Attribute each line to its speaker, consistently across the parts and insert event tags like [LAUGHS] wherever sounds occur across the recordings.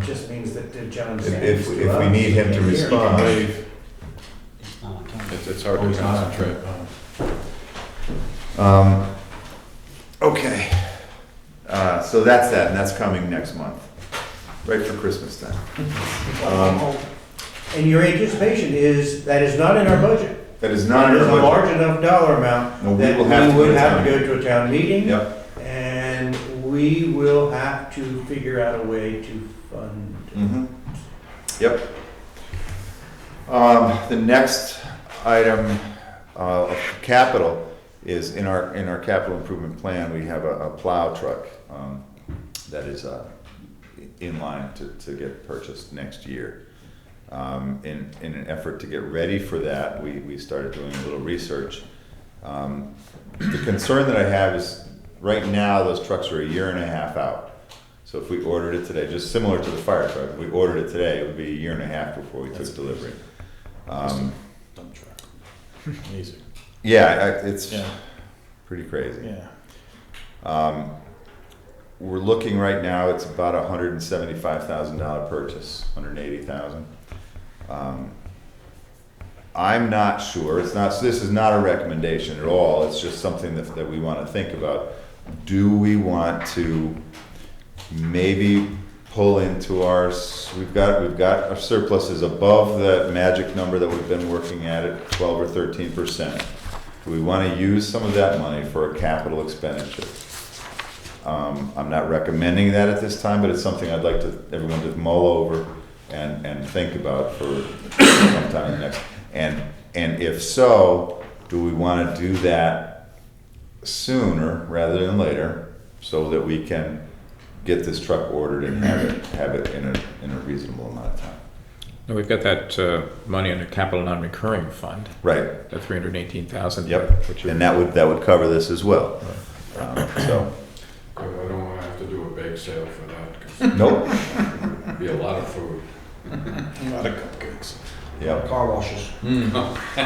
Speaker 1: just means that did John
Speaker 2: um, If,
Speaker 1: send
Speaker 2: if,
Speaker 1: it to
Speaker 2: if we
Speaker 1: us?
Speaker 2: need him to
Speaker 1: Here.
Speaker 2: respond,
Speaker 3: It's not on camera.
Speaker 4: It's, it's hard to concentrate.
Speaker 2: Um, okay. Uh, so that's that, and that's coming next month, right for Christmas time. Um,
Speaker 1: And your anticipation is, that is not in our budget.
Speaker 2: that is not
Speaker 1: It
Speaker 2: in
Speaker 1: is a
Speaker 2: our
Speaker 1: large enough dollar amount
Speaker 2: budget. No,
Speaker 1: that
Speaker 2: we
Speaker 1: we
Speaker 2: will have to go to town.
Speaker 1: would have to go to a town meeting.
Speaker 2: Yep.
Speaker 1: And we will have to figure out a way to fund.
Speaker 2: Mhm. Yep. Um, the next item, uh, of capital is in our, in our capital improvement plan, we have a, a plow truck, um, that is, uh, in line to, to get purchased next year. Um, in, in an effort to get ready for that, we, we started doing a little research. Um, the concern that I have is, right now, those trucks are a year and a half out. So if we ordered it today, just similar to the fire truck, if we ordered it today, it would be a year and a half before we took delivery. Um,
Speaker 4: Dump truck. Amazing.
Speaker 2: yeah, I- it's
Speaker 4: Yeah,
Speaker 2: pretty crazy.
Speaker 4: yeah.
Speaker 2: Um, we're looking right now, it's about a hundred and seventy-five thousand dollar purchase, hundred and eighty thousand. Um, I'm not sure, it's not, so this is not a recommendation at all, it's just something that, that we wanna think about. Do we want to maybe pull into our, s- we've got, we've got our surpluses above that magic number that we've been working at at twelve or thirteen percent. Do we want to use some of that money for a capital expenditure? Um, I'm not recommending that at this time, but it's something I'd like to, everyone to mull over and, and think about for sometime in the next. And, and if so, do we want to do that sooner rather than later so that we can get this truck ordered and have it, have it in a, in a reasonable amount of time?
Speaker 5: No, we've got that uh, money under capital non-recurring fund,
Speaker 2: Right,
Speaker 5: that 318,000.
Speaker 2: yep,
Speaker 5: which
Speaker 2: and that would, that would cover this as well. Um, So,
Speaker 6: Because I don't want to have to do a bake sale for
Speaker 3: [LAUGHS]
Speaker 6: that, because
Speaker 2: nope,
Speaker 6: it'd be a lot of food.
Speaker 4: A lot of cupcakes.
Speaker 2: yep.
Speaker 3: Car washes.
Speaker 6: Hmm. [LAUGHS]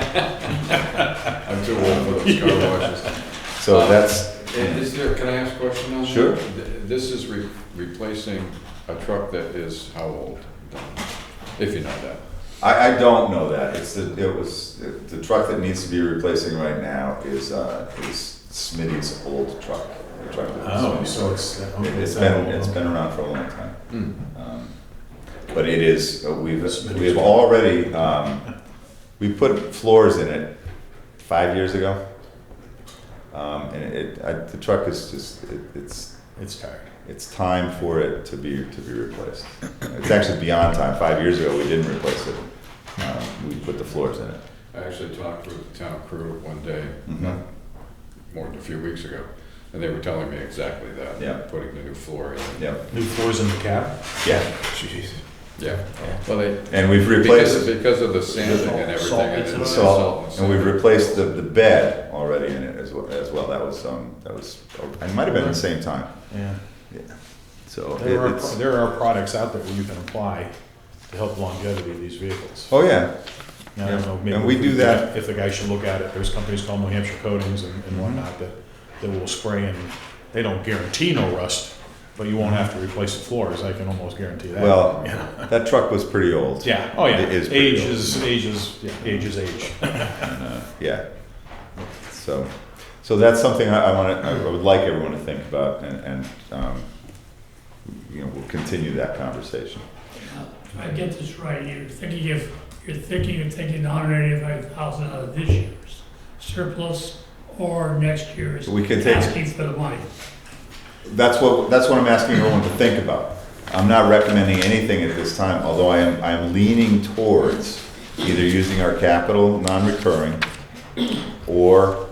Speaker 6: I'm too old for those car washes.
Speaker 4: Um,
Speaker 2: So that's,
Speaker 6: And is there, can I ask a question on that?
Speaker 2: Sure.
Speaker 6: Th- This is re- replacing a truck that is how old? Don? If you know that.
Speaker 2: I, I don't know that. It's the, it was, the truck that needs to be replacing right now is, uh, is Smitty's old truck. The truck that
Speaker 4: Oh,
Speaker 2: Smitty-
Speaker 4: so it's, uh, okay.
Speaker 2: It's
Speaker 4: it's
Speaker 2: been,
Speaker 4: that
Speaker 2: it's
Speaker 4: old.
Speaker 2: been around for a long time.
Speaker 6: Hmm.
Speaker 2: Um, But it is, uh, we've,
Speaker 4: Smitty's
Speaker 2: we've
Speaker 4: old.
Speaker 2: already, um, we put floors in it five years ago. Um, and it, I, the truck is just, it, it's,
Speaker 4: It's tired.
Speaker 2: it's time for it to be, to be replaced. It's actually beyond time. Five years ago, we didn't replace it. Um, We put the floors in it.
Speaker 6: I actually talked with the town crew one day,
Speaker 2: Mhm.
Speaker 6: more than a few weeks ago, and they were telling me exactly that.
Speaker 2: Yeah.
Speaker 6: Putting the new floor in.
Speaker 2: Yep,
Speaker 4: New floors in the cab?
Speaker 2: yeah.
Speaker 4: Jeez.
Speaker 6: Yeah, well, they,
Speaker 2: And we've
Speaker 6: because of,
Speaker 2: replaced
Speaker 6: because of the sanding and
Speaker 3: Salt,
Speaker 6: everything.
Speaker 3: it's
Speaker 6: and
Speaker 2: the
Speaker 6: the
Speaker 2: salt,
Speaker 6: salt
Speaker 2: and we've replaced the, the bed already in it as well, as well. That was, um, that was, it might have been at the same time.
Speaker 4: Yeah.
Speaker 2: So it-
Speaker 4: There are, pro-
Speaker 2: it's,
Speaker 4: there are products out there where you can apply to help longevity of these vehicles.
Speaker 2: oh yeah,
Speaker 4: Now, I don't know, maybe
Speaker 2: And we
Speaker 4: if
Speaker 2: do that- Mm-hmm.
Speaker 4: If the guy should look at it, there's companies called New Hampshire Coatings and and whatnot that, that will spray and they don't guarantee no rust, but you won't have to replace the floors, I can almost guarantee that.
Speaker 2: well, that truck was pretty old.
Speaker 4: Yeah, oh yeah,
Speaker 2: It is pretty
Speaker 4: age
Speaker 2: old.
Speaker 4: is, age is, yeah, age is age.
Speaker 2: Yeah. So, so that's something I, I wanna, I would like everyone to think about and, and, um, you know, we'll continue that conversation.
Speaker 7: If I get this right, you're thinking of, you're thinking of taking hundred eighty-five thousand out of this year's surplus or next year's.
Speaker 2: We can take it.
Speaker 7: Asking for the money.
Speaker 2: That's what, that's what I'm asking everyone to think about. I'm not recommending anything at this time, although I am, I'm leaning towards either using our capital, non-recurring, or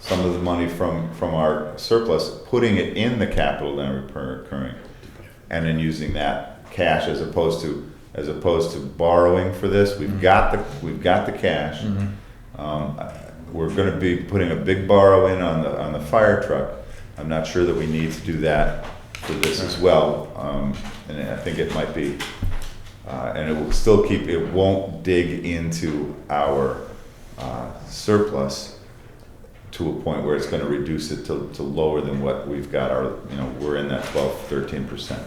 Speaker 2: some of the money from, from our surplus, putting it in the capital, non-recurring, and then using that cash as opposed to, as opposed to borrowing for this. We've got the, we've got the cash. Um, I- We're gonna be putting a big borrow in on the, on the fire truck. I'm not sure that we need to do that for this as well. Um, And I think it might be, uh, and it will still keep, it won't dig into our uh, surplus to a point where it's gonna reduce it to, to lower than what we've got our, you know, we're in that twelve, thirteen percent.